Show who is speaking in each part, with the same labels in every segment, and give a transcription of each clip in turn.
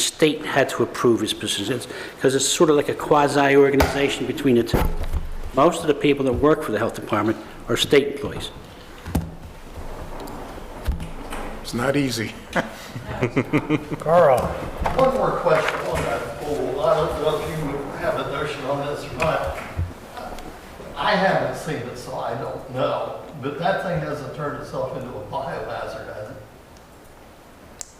Speaker 1: state had to approve his positions, because it's sort of like a quasi-organization between the two. Most of the people that work for the health department are state employees.
Speaker 2: It's not easy.
Speaker 3: Carl,
Speaker 4: One more question on that pool. I don't know if you have a notion on this or not. I haven't seen it, so I don't know, but that thing hasn't turned itself into a biohazard, has it?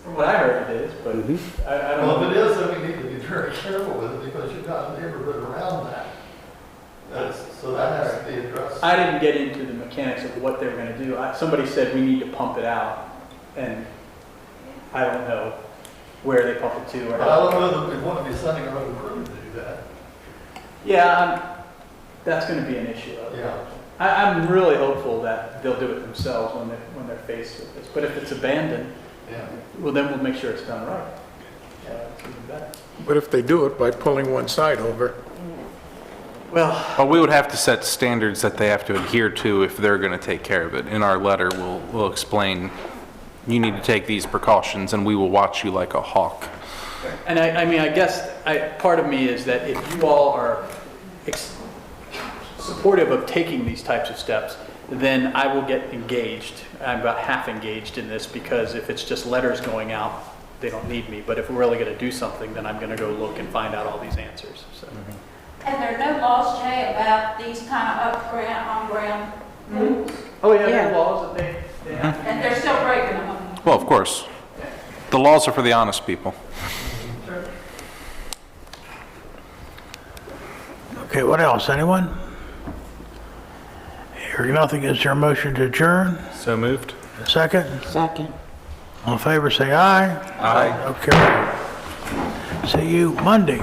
Speaker 5: From what I heard it is, but I, I don't
Speaker 4: Well,
Speaker 5: know.
Speaker 4: if it is, then we need to be very careful with it because you've got a neighborhood around that. That's- So that has to be addressed.
Speaker 5: I didn't get into the mechanics of what they were gonna do. I- Somebody said we need to pump it out, and I don't know where they pump it to or
Speaker 4: But I
Speaker 5: how.
Speaker 4: don't know that we want to be sending our own crew to do that.
Speaker 5: Yeah, I'm- that's gonna be an issue.
Speaker 4: Yeah.
Speaker 5: I, I'm really hopeful that they'll do it themselves when they're, when they're faced with this. But if it's abandoned,
Speaker 4: Yeah.
Speaker 5: well, then we'll make sure it's done right.
Speaker 4: Yeah.
Speaker 5: That's even better.
Speaker 2: But if they do it by pulling one side over,
Speaker 5: Well,
Speaker 6: Well, we would have to set standards that they have to adhere to if they're going to take care of it. In our letter, we'll, we'll explain, you need to take these precautions, and we will watch you like a hawk.
Speaker 5: and I, I mean, I guess, I, part of me is that if you all are ex- supportive of taking these types of steps, then I will get engaged. I'm about half engaged in this because if it's just letters going out, they don't need me. But if we're really going to do something, then I'm going to go look and find out all these answers, so.
Speaker 7: And there are no laws, Jay, about these kind of up-ground, on-ground rules?
Speaker 5: Oh, yeah,
Speaker 8: there are
Speaker 5: laws that they, they have.
Speaker 7: And they're still breaking them?
Speaker 6: Well, of course, the laws are for the honest people.
Speaker 3: okay, what else, anyone? Hearing nothing, is there a motion to adjourn?
Speaker 6: So moved?
Speaker 3: Second?
Speaker 8: Second.
Speaker 3: All in favor, say aye.
Speaker 6: Aye.
Speaker 3: Okay. See you Monday.